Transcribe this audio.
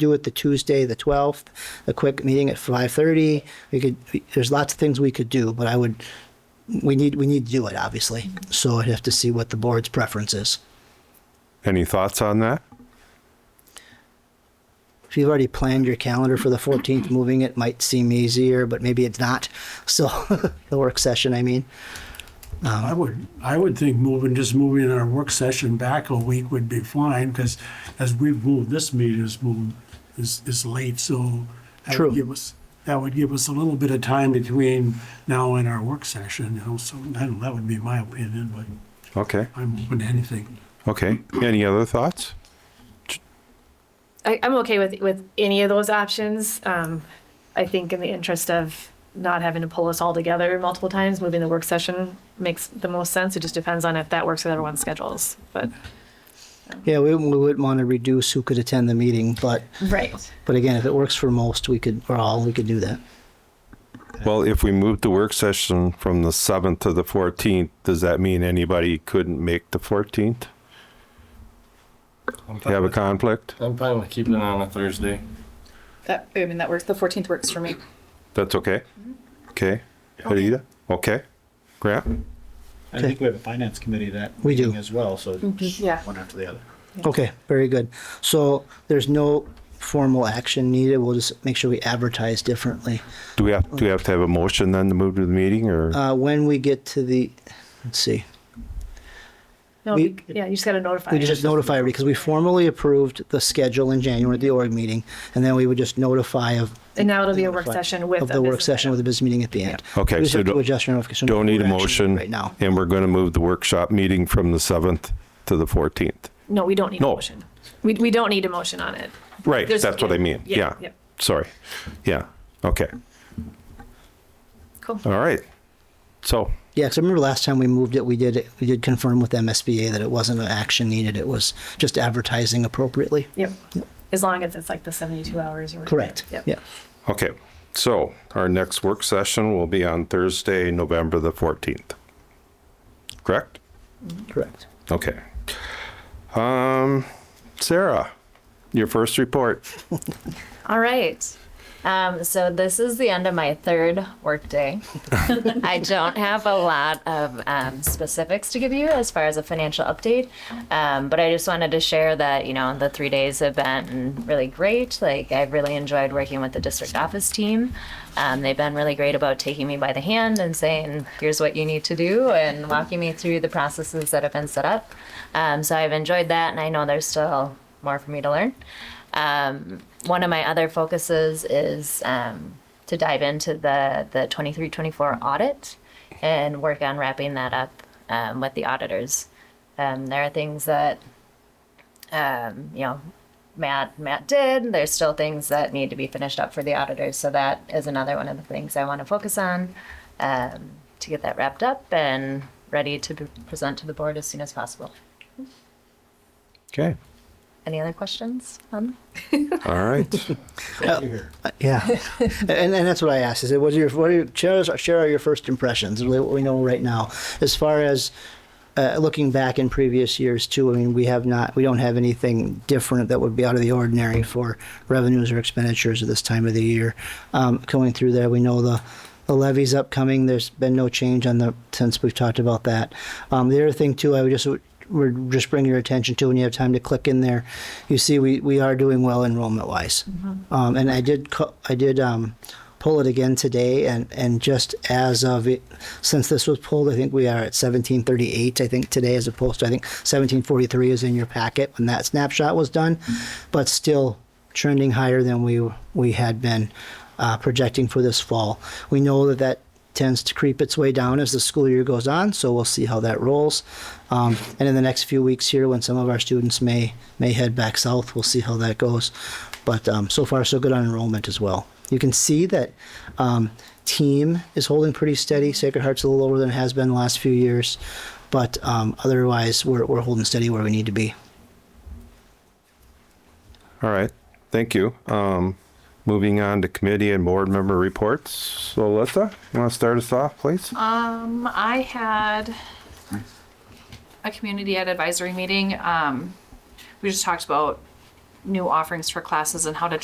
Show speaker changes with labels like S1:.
S1: do it the Tuesday, the 12th, a quick meeting at 5:30. We could, there's lots of things we could do, but I would, we need, we need to do it, obviously. So I'd have to see what the board's preference is.
S2: Any thoughts on that?
S1: If you've already planned your calendar for the 14th, moving it might seem easier, but maybe it's not. So the work session, I mean.
S3: I would, I would think moving, just moving our work session back a week would be fine, because as we've moved, this meeting is moved, is, is late, so. that would
S1: True.
S3: Give us, that would give us a little bit of time between now and our work session, you know, so, I don't, that would be my opinion, but
S2: Okay.
S3: I'm open to anything.
S2: Okay. Any other thoughts?
S4: I, I'm okay with, with any of those options. Um, I think in the interest of not having to pull us all together multiple times, moving the work session makes the most sense. It just depends on if that works with everyone's schedules, but.
S1: Yeah, we, we wouldn't want to reduce who could attend the meeting, but,
S4: Right.
S1: but again, if it works for most, we could, or all, we could do that.
S2: Well, if we move the work session from the 7th to the 14th, does that mean anybody couldn't make the 14th?
S5: I'm fine
S2: You have a
S5: with-
S2: conflict?
S5: I'm fine with keeping it on a Thursday.
S6: That, I mean, that works. The 14th works for me.
S2: That's okay?
S5: Mm-hmm.
S2: Okay. Rita? Okay. Grant?
S7: I think we have a finance committee that
S1: We do.
S7: meeting as well, so just
S6: Yeah.
S7: one after the other.
S1: Okay, very good. So there's no formal action needed. We'll just make sure we advertise differently.
S2: Do we have, do we have to have a motion then to move to the meeting or?
S1: Uh, when we get to the, let's see,
S4: No,
S1: We-
S4: yeah, you just gotta notify.
S1: we just notify because we formally approved the schedule in January at the org meeting, and then we would just notify of.
S4: And now it'll be a work
S1: notify
S4: session with
S1: Of
S4: a
S1: the work
S4: business
S1: session
S4: item.
S1: with the business meeting at the end.
S2: Okay,
S1: We just
S2: so
S1: have to
S2: don't-
S1: adjust our notification.
S2: Don't need a
S1: We're actually
S2: motion.
S1: Right now.
S2: And we're going to move the workshop meeting from the 7th to the 14th.
S4: No, we don't need a
S2: No.
S4: motion. We, we don't need a motion on it.
S2: Right,
S4: There's-
S2: that's what I mean.
S4: yeah,
S2: Yeah.
S4: yeah.
S2: Sorry. Yeah. Okay.
S4: Cool.
S2: All right. So,
S1: Yeah, because I remember last time we moved it, we did, we did confirm with MSBA that it wasn't an action needed. It was just advertising appropriately.
S4: Yep. As long as it's like the seventy-two hours or.
S1: Correct.
S4: Yep.
S1: Yeah.
S2: okay. So, our next work session will be on Thursday, November the 14th. Correct?
S1: Correct.
S2: Okay. Um, Sarah, your first report.
S8: All right. Um, so this is the end of my third workday. I don't have a lot of um, specifics to give you as far as a financial update, um, but I just wanted to share that you know the three days have been really great. Like I've really enjoyed working with the district office team. Um, they've been really great about taking me by the hand and saying, "Here's what you need to do," and walking me through the processes that have been set up. Um, so I've enjoyed that, and I know there's still more for me to learn. Um, one of my other focuses is um, to dive into the the 23-24 audit and work on wrapping that up um, with the auditors. Um, there are things that um, you know Matt Matt did. There's still things that need to be finished up for the auditors. So that is another one of the things I want to focus on um, to get that wrapped up and ready to be- present to the board as soon as possible.
S2: Okay.
S8: Any other questions? On?
S2: All right.
S1: Uh, Yeah. and, and that's what I asked. Is it what are your what are your, share, us- share your first impressions? Really, what we know right now, as far as uh, looking back in previous years too. I mean, we have not we don't have anything different that would be out of the ordinary for revenues or expenditures at this time of the year. Um, going through there, we know the. The levy's upcoming. There's been no change on the since we've talked about that. Um, the other thing too, I would just we're just bring your attention to when you have time to click in there. You see, we, we are doing well enrollment wise. Um, and I did co- I did um, pull it again today, and, and just as of it, since this was pulled, I think we are at 1738. I think today, as opposed to I think 1743 is in your packet when that snapshot was done, but still trending higher than we we had been uh, projecting for this fall. We know that that tends to creep its way down as the school year goes on. So we'll see how that rolls. Um, and in the next few weeks here, when some of our students may may head back south, we'll see how that goes. But um, so far, so good on enrollment as well. You can see that um, team is holding pretty steady. Sacred Heart's a little lower than it has been the last few years, but um, otherwise, we're, we're holding steady where we need to be.
S2: All right. Thank you. Um, moving on to committee and board member reports. So, Alyssa, you want to start us off, please?
S6: Um, I had a community ed advisory meeting. Um, we just talked about new offerings for classes and how to